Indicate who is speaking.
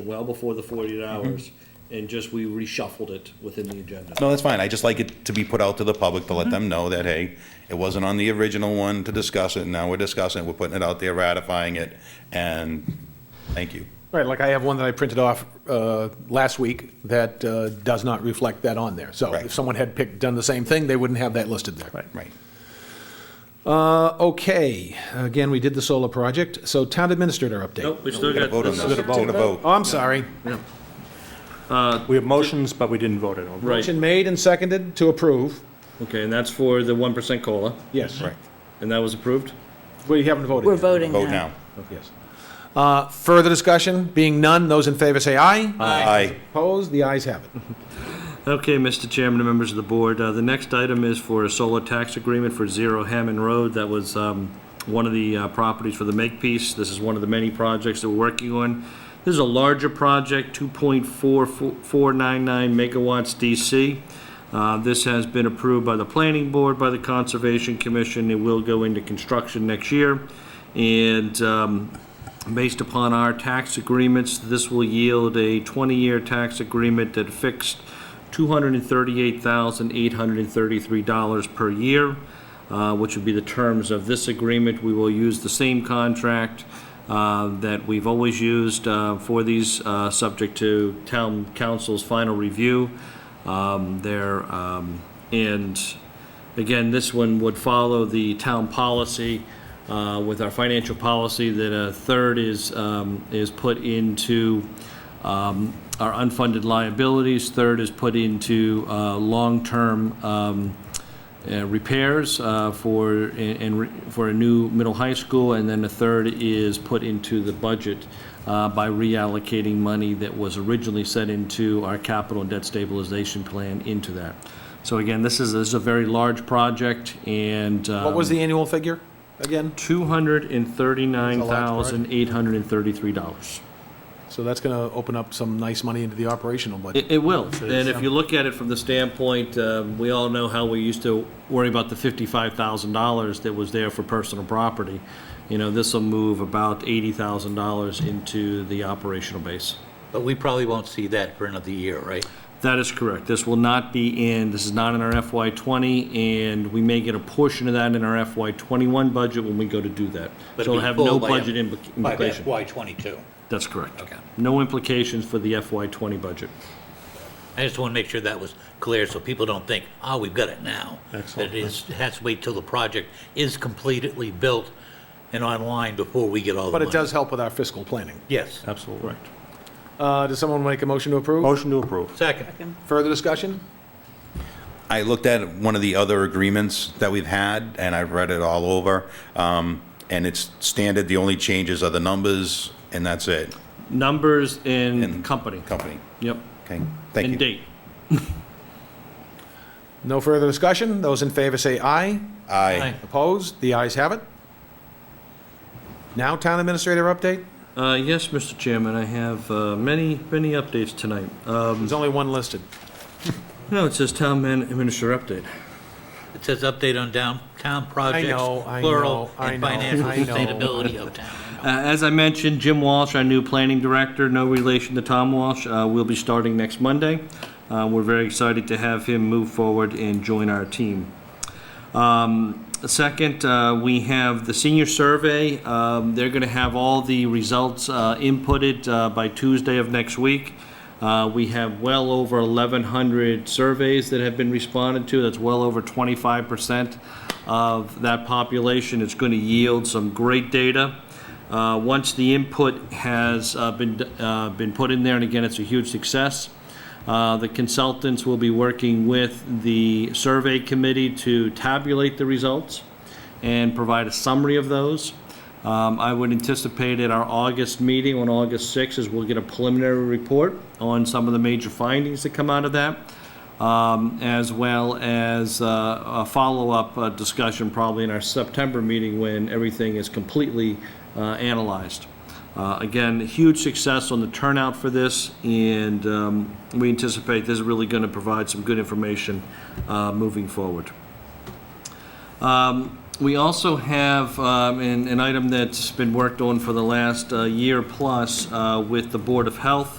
Speaker 1: well before the forty-eight hours, and just we reshuffled it within the agenda.
Speaker 2: No, that's fine. I just like it to be put out to the public to let them know that, hey, it wasn't on the original one to discuss it. Now we're discussing it. We're putting it out there, ratifying it, and thank you.
Speaker 3: Right, like I have one that I printed off uh, last week that uh, does not reflect that on there. So
Speaker 2: Right.
Speaker 3: if someone had picked, done the same thing, they wouldn't have that listed there.
Speaker 2: Right.
Speaker 3: Uh, Okay, again, we did the solar project, so town administrator update.
Speaker 4: Nope, we still
Speaker 2: Gotta
Speaker 4: got.
Speaker 2: vote on
Speaker 4: this
Speaker 2: this.
Speaker 4: is-
Speaker 2: It's gonna vote.
Speaker 3: Oh, I'm sorry.
Speaker 5: We have motions, but we didn't vote on them.
Speaker 4: Right,
Speaker 3: Motion made and seconded to approve.
Speaker 4: okay, and that's for the one percent COLA,
Speaker 3: Yes.
Speaker 2: Right.
Speaker 4: and that was approved?
Speaker 3: We haven't voted.
Speaker 6: We're
Speaker 3: yet.
Speaker 6: voting
Speaker 2: Vote now.
Speaker 3: Yes. Uh, Further discussion? Being none, those in favor say aye. Mm-hmm.
Speaker 2: Aye.
Speaker 3: Opposed? The ayes have it.
Speaker 4: Okay, Mr. Chairman and members of the board, uh, the next item is for a solar tax agreement for Zero Hammond Road. That was um, one of the uh, properties for the Makepeace. This is one of the many projects that we're working on. This is a larger project, 2.4499 megawatts DC. Uh, This has been approved by the Planning Board, by the Conservation Commission. It will go into construction next year. And um, Based upon our tax agreements, this will yield a 20-year tax agreement that fixed $238,833 per year, uh, which would be the terms of this agreement. We will use the same contract uh, that we've always used uh, for these, uh, subject to town council's final review um, there. um, And again, this one would follow the town policy uh, with our financial policy that a third is, um, is put into um, our unfunded liabilities, third is put into uh, long-term um, uh, repairs uh, for, and, re- for a new middle high school, and then a third is put into the budget uh, by reallocating money that was originally set into our capital and debt stabilization plan into that. So again, this is, this is a very large project, and. um,
Speaker 3: What was the annual figure again?
Speaker 4: Two hundred and thirty-nine thousand, eight hundred and thirty-three dollars.
Speaker 3: So that's going to open up some nice money into the operational budget.
Speaker 4: It, it will. And if you look at it from the standpoint, um, we all know how we used to worry about the fifty-five thousand dollars that was there for personal property. You know, this will move about eighty thousand dollars into the operational base.
Speaker 7: But we probably won't see that for another year, right?
Speaker 4: That is correct. This will not be in, this is not in our FY twenty, and we may get a portion of that in our FY twenty-one budget when we go to do that. So
Speaker 7: But it'll
Speaker 4: it'll
Speaker 7: be
Speaker 4: have
Speaker 7: full
Speaker 4: no
Speaker 7: by M-
Speaker 4: budget implica-
Speaker 7: By
Speaker 4: implication.
Speaker 7: FY '22.
Speaker 4: That's correct.
Speaker 7: Okay.
Speaker 4: No implications for the FY twenty budget.
Speaker 7: I just want to make sure that was clear, so people don't think, oh, we've got it now. Excellent. It is, has to wait till the project is completely built and online before we get all the
Speaker 3: But
Speaker 7: money.
Speaker 3: it does help with our fiscal planning.
Speaker 7: Yes.
Speaker 4: Absolutely. Right.
Speaker 3: Uh, Does someone make a motion to approve?
Speaker 5: Motion to approve.
Speaker 7: Second.
Speaker 3: Further discussion?
Speaker 2: I looked at one of the other agreements that we've had, and I've read it all over, um, and it's standard. The only changes are the numbers, and that's it.
Speaker 4: Numbers in
Speaker 2: And-
Speaker 4: company.
Speaker 2: Company.
Speaker 4: Yep.
Speaker 2: Okay, thank you.
Speaker 4: And date.
Speaker 3: No further discussion? Those in favor say aye.
Speaker 2: Aye.
Speaker 3: Opposed? The ayes have it. Now town administrator update?
Speaker 4: Uh, Yes, Mr. Chairman, I have uh, many, many updates tonight. Um,
Speaker 3: There's only one listed.
Speaker 4: No, it says Town Man Administrator Update.
Speaker 7: It says update on downtown projects.
Speaker 3: know, I know,
Speaker 7: Plural,
Speaker 3: I
Speaker 7: and
Speaker 3: know,
Speaker 7: financial
Speaker 3: I know.
Speaker 7: sustainability of town.
Speaker 4: Uh, As I mentioned, Jim Walsh, our new planning director, no relation to Tom Walsh, uh, will be starting next Monday. Uh, We're very excited to have him move forward and join our team. Second, uh, we have the senior survey. Um, They're going to have all the results uh, inputted uh, by Tuesday of next week. Uh, We have well over 1,100 surveys that have been responded to. That's well over 25% of that population. It's going to yield some great data. Uh, Once the input has uh, been uh, been put in there, and again, it's a huge success, uh, The consultants will be working with the survey committee to tabulate the results and provide a summary of those. Um, I would anticipate at our August meeting on August 6th is we'll get a preliminary report on some of the major findings that come out of that, um, as well as uh, a follow-up uh, discussion probably in our September meeting when everything is completely uh, analyzed. Uh, Again, huge success on the turnout for this, and um, we anticipate this is really going to provide some good information uh, moving forward. Um, We also have um, an an item that's been worked on for the last uh, year plus uh, with the Board of Health.